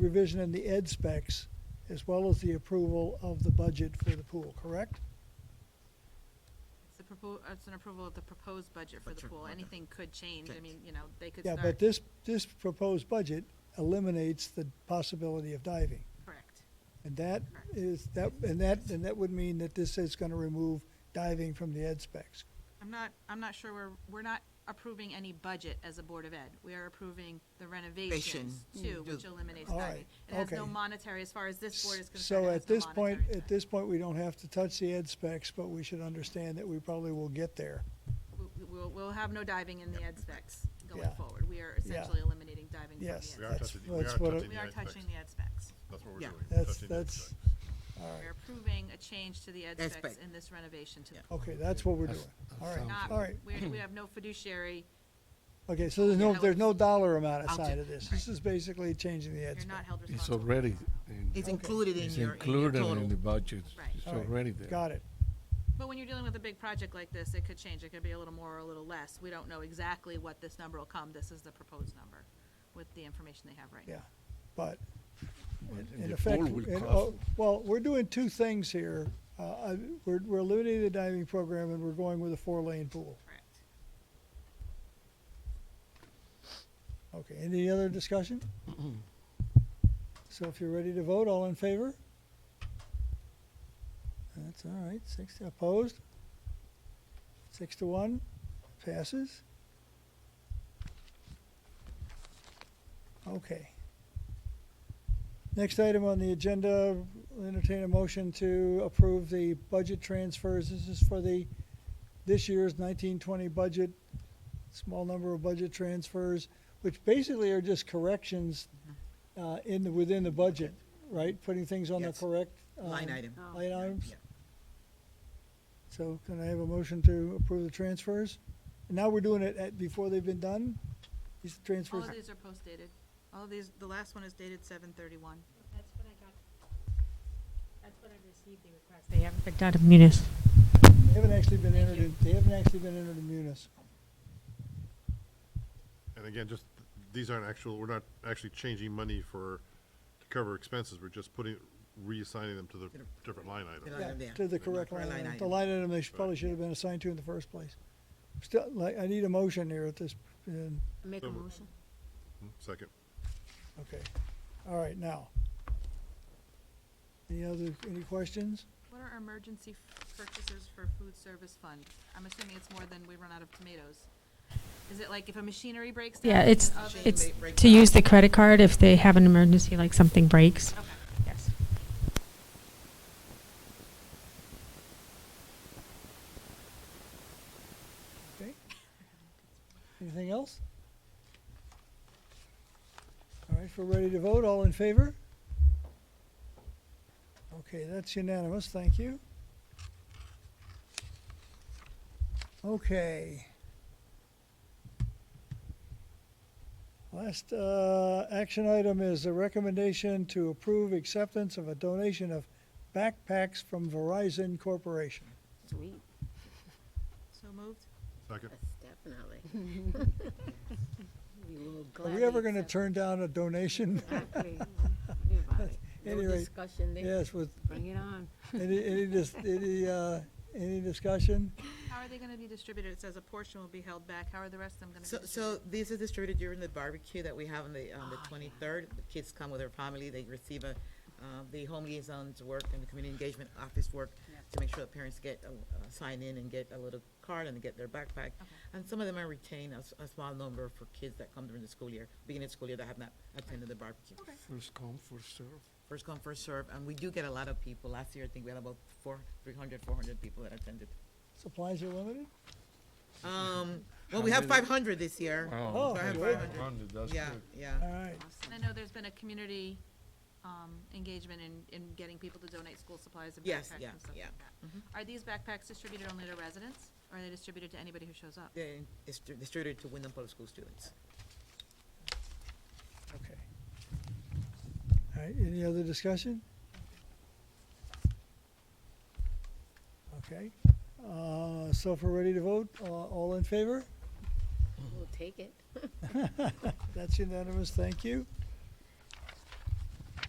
revision in the ed specs as well as the approval of the budget for the pool, correct? It's the propo, uh, it's an approval of the proposed budget for the Budget, pool. okay. Anything could change. I Change. mean, you know, they could Yeah, start. but this, this proposed budget eliminates the possibility of diving. Correct. And that Correct. is, that, and that, and that would mean that this is gonna remove diving from the ed specs. I'm not, I'm not sure we're, we're not approving any budget as a Board of Ed. We are approving the renovations too, Mm. which eliminates All diving. right, It has no okay. monetary, as far as this board is concerned, So it at has no this point, monetary at value. this point, we don't have to touch the ed specs, but we should understand that we probably will get there. We- We'll, we'll have no diving in the ed specs going Yeah. forward. We are essentially eliminating diving from the ed. Yes. We are That's- touching, we are that's what I- touching We the are ed specs. touching the ed specs. That's what we're Yeah. doing. That's, touching the ed that's, specs. We're approving a change to the ed Ed specs spec. in this renovation to the Yeah. pool. okay, that's what we're doing. All right, Not, all right. we, we have no fiduciary, Okay, so there's no, Yeah. there's no dollar amount I'll aside do- of this. This is basically changing the ed you're not spec. held It's responsible. already, in- It's Okay. included in it's your, in your included in total. the budget. Right. It's All right. already there. Got it. But when you're dealing with a big project like this, it could change. It could be a little more or a little less. We don't know exactly what this number will come. This is the proposed number with the information they have right now. Yeah, but But in- the in poll effect, will in- cost- oh, well, we're doing two things here. Uh, I- We're, we're eliminating the diving program and we're going with a four-lane pool. Correct. Okay, any other discussion? So if you're ready to vote, all in favor? That's all right, six opposed? Six to one, passes? Okay. Next item on the agenda, entertain a motion to approve the budget transfers. This is for the, this year's nineteen twenty budget, small number of budget transfers, which basically are just corrections uh, in the, within the budget, right? Putting things on the Yes. correct. um, Line item. Line items? Yeah. So can I have a motion to approve the transfers? And now we're doing it at, before they've been done? These All transfers, of these are post-dated. All of these, the last one is dated seven thirty-one. That's what I got. That's what I received, the request. They haven't picked out of Munis. they haven't actually been entered, in- they haven't actually been entered in munis. And again, just, th- these aren't actual, we're not actually changing money for, to cover expenses, we're just putting, reassigning them to the different line The item. line item Yeah, there. To the correct Or line line item, the item. line item they should- probably should have been assigned to in the first place. Still, like, I need a motion here at this, uh, Make a motion. Hmm? Second. okay, all right, now. Any other, any questions? What are emergency f- purchases for food service fund? I'm assuming it's more than we run out of tomatoes. Is it like if a machinery breaks down? Yeah, an it's, oven- it's break- break to use the credit card if they have an emergency, like something breaks. Okay. Yes. Okay. Anything else? All right, if we're ready to vote, all in favor? Okay, that's unanimous, thank you. Okay. Last uh, action item is a recommendation to approve acceptance of a donation of backpacks from Verizon Corporation. Sweet, So moved? Second. yes, definitely. We will Are gladly. we ever going to accept- turn down a donation? Exactly. Knew about it. No Anyway, discussion there. Yes, with Bring it on. Any, any, dis- any, uh, any discussion? How are they gonna be distributed? It says a portion will be held back. How are the rest of them gonna be So, distributed? so these are distributed during the barbecue that we have on the, Oh, on the twenty-third. The kids come with their family, they receive a, uh, the home liaisons work and the community engagement office work to make sure the parents get, a- uh, sign in and get a little card and get their backpack. And some of them are retained, a, s- a small number for kids that come during the school year, beginning of school year that have not attended the barbecue. First come, first serve. First come, first serve, and we do get a lot of people. Last year, I think we had about four, three hundred, four hundred people that attended. Supplies are limited? Um, well, we have many? five hundred this year. Oh, So I have good. 500. Hundred, that's Yeah, good. yeah. All right, And I know there's been a community um, engagement in, in getting people to donate school supplies and Yes, backpacks and yeah, stuff like yeah. that. Are these backpacks distributed only to residents, or are they distributed to anybody who shows up? Then it's dri- distributed to Wyndham Public School students. okay. All right, any other discussion? Okay, uh, so if we're ready to vote, uh, all in favor? We'll take it. That's unanimous, thank you.